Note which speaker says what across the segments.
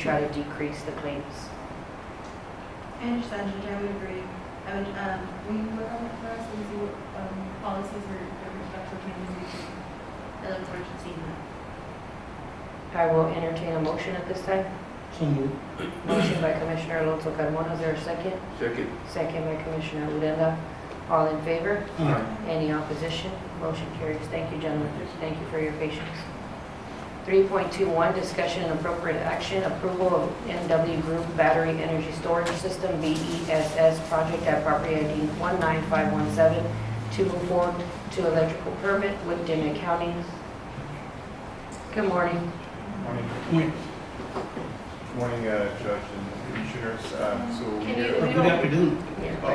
Speaker 1: try to decrease the claims.
Speaker 2: I understand, Ginger, I would agree. I would, um, will you work on it for us and see what, um, policies or or respectful changes we can? I look forward to seeing that.
Speaker 1: I will entertain a motion at this time.
Speaker 3: So moved.
Speaker 1: Motion by Commissioner Alonso Carmona, is there a second?
Speaker 4: Second.
Speaker 1: Second by Commissioner Odena. All in favor?
Speaker 3: Aye.
Speaker 1: Any opposition? Motion carries. Thank you, gentlemen. Thank you for your patience. 3.21, discussion and appropriate action, approval of NW Group Battery Energy Storage System, BESS, project at property ID 19517, to move forward to electrical permit with Dimmitt County. Good morning.
Speaker 4: Morning,
Speaker 3: Wait,
Speaker 4: morning, uh, Judge and Commissioners. Uh, So
Speaker 1: Can
Speaker 4: we
Speaker 1: you-
Speaker 4: are-
Speaker 3: Good afternoon.
Speaker 4: Oh,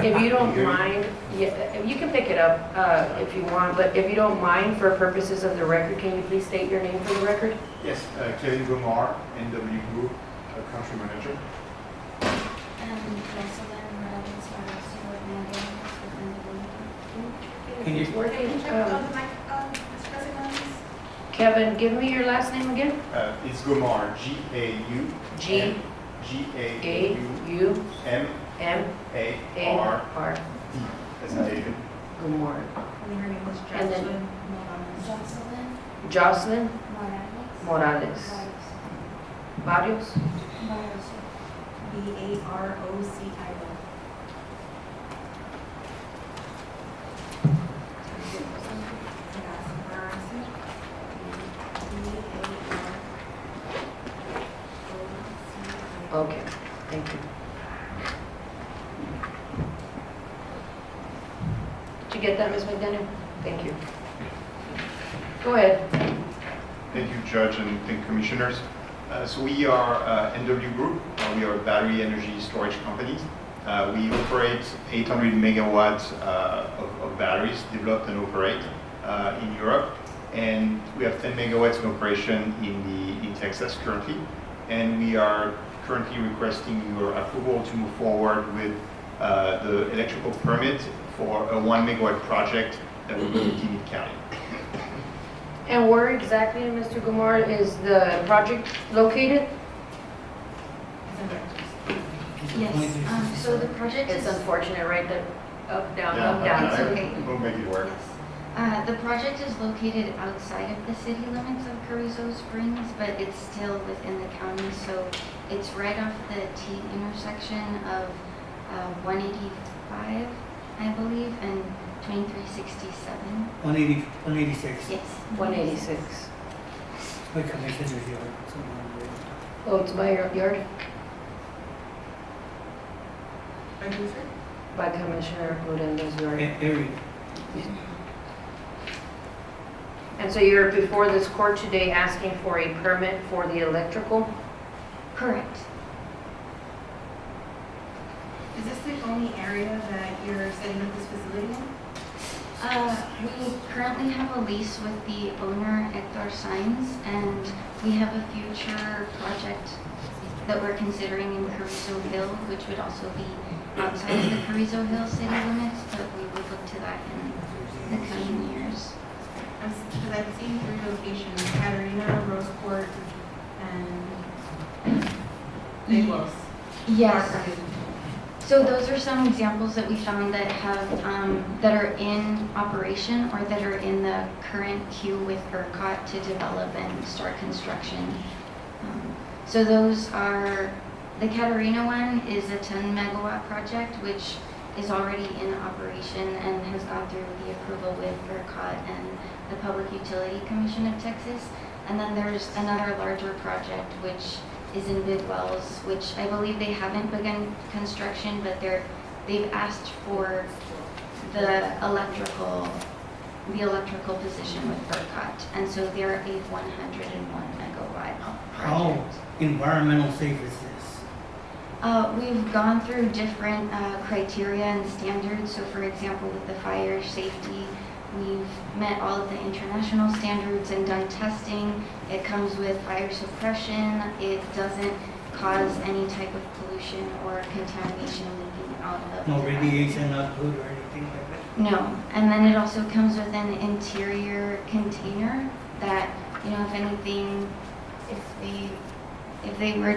Speaker 1: If you don't
Speaker 4: You hear me?
Speaker 1: mind, yeah, if you can pick it up uh, if you want, but if you don't mind, for purposes of the record, can you please state your name for the record?
Speaker 4: Yes, uh, Kelly Gomar, NW Group, uh, Country Manager.
Speaker 5: And Jocelyn Robbins, our sewer manager, for the
Speaker 3: Can you-
Speaker 1: Um,
Speaker 2: the mic, um, Mr. President,
Speaker 1: Kevin, give me your last name again.
Speaker 4: Uh, It's Gomar, G-A-U.
Speaker 1: G A U
Speaker 4: G-A-U-M-A-R-D,
Speaker 1: M A R
Speaker 4: as in David.
Speaker 1: Gomorrah.
Speaker 2: her name was
Speaker 1: And then-
Speaker 2: Jocelyn Morales.
Speaker 1: Jocelyn
Speaker 5: Jocelyn Morales.
Speaker 1: Morales. Barrios?
Speaker 5: Morales.
Speaker 2: B A R O C I O.
Speaker 1: Okay, thank you. Did you get that, Ms. McDaniel? Thank you. Go ahead.
Speaker 4: Thank you, Judge, and thank Commissioners. Uh, So we are uh, NW Group. Uh, We are a battery energy storage company. Uh, We operate 800 megawatts uh, of of batteries developed and operate uh, in Europe. And we have 10 megawatts in operation in the, in Texas currently. And we are currently requesting your approval to move forward with uh, the electrical permit for a one megawatt project that will be in Dean County.
Speaker 1: And where exactly, Mr. Gomorrah, is the project located?
Speaker 5: Yes, um, so the project is,
Speaker 1: It's unfortunate, right, that up, down,
Speaker 4: Yeah,
Speaker 1: up, down.
Speaker 4: I-
Speaker 5: it's
Speaker 4: I-
Speaker 5: okay.
Speaker 4: We'll make it work.
Speaker 5: yes. Uh, the project is located outside of the city limits of Carrizo Springs, but it's still within the county, so it's right off the T intersection of, uh, one eighty-five, I believe, and twenty-three sixty-seven,
Speaker 3: 180 186.
Speaker 5: yes.
Speaker 1: 186.
Speaker 3: My commissioner's here. somewhere in there.
Speaker 1: Oh, it's by your yard? By Commissioner Odena, yard.
Speaker 3: A- Area.
Speaker 1: And so you're before this court today asking for a permit for the electrical?
Speaker 5: Correct.
Speaker 2: Is this the only area that you're setting up this facility in?
Speaker 5: Uh, We currently have a lease with the owner, Hector Signs, and we have a future project that we're considering in Carrizo Hill, which would also be outside of the Carrizo Hill city limits, but we would look to that in the coming years.
Speaker 2: I'm s- Because I've seen three locations, Katerina, Rose Court, and Lagos.
Speaker 5: Yes. So those are some examples that we found that have, um, that are in operation or that are in the current queue with ERCOT to develop and start construction. Um, So those are, the Catarina one is a 10 megawatt project, which is already in operation and has gone through the approval with ERCOT and the Public Utility Commission of Texas. And then there's another larger project, which is in Big Wells, which I believe they haven't begun construction, but they're, they've asked for the electrical, the electrical position with ERCOT. And so they're a 101 megawatt
Speaker 3: How
Speaker 5: project.
Speaker 3: environmental safe is this?
Speaker 5: Uh, we've gone through different uh, criteria and standards. So, for example, with the fire safety, we've met all of the international standards and done testing. It comes with fire suppression. It doesn't cause any type of pollution or contamination leaking out of.
Speaker 3: No
Speaker 5: the-
Speaker 3: radiation output or anything like that?
Speaker 5: No, and then it also comes with an interior container that, you know, if anything, if they if they were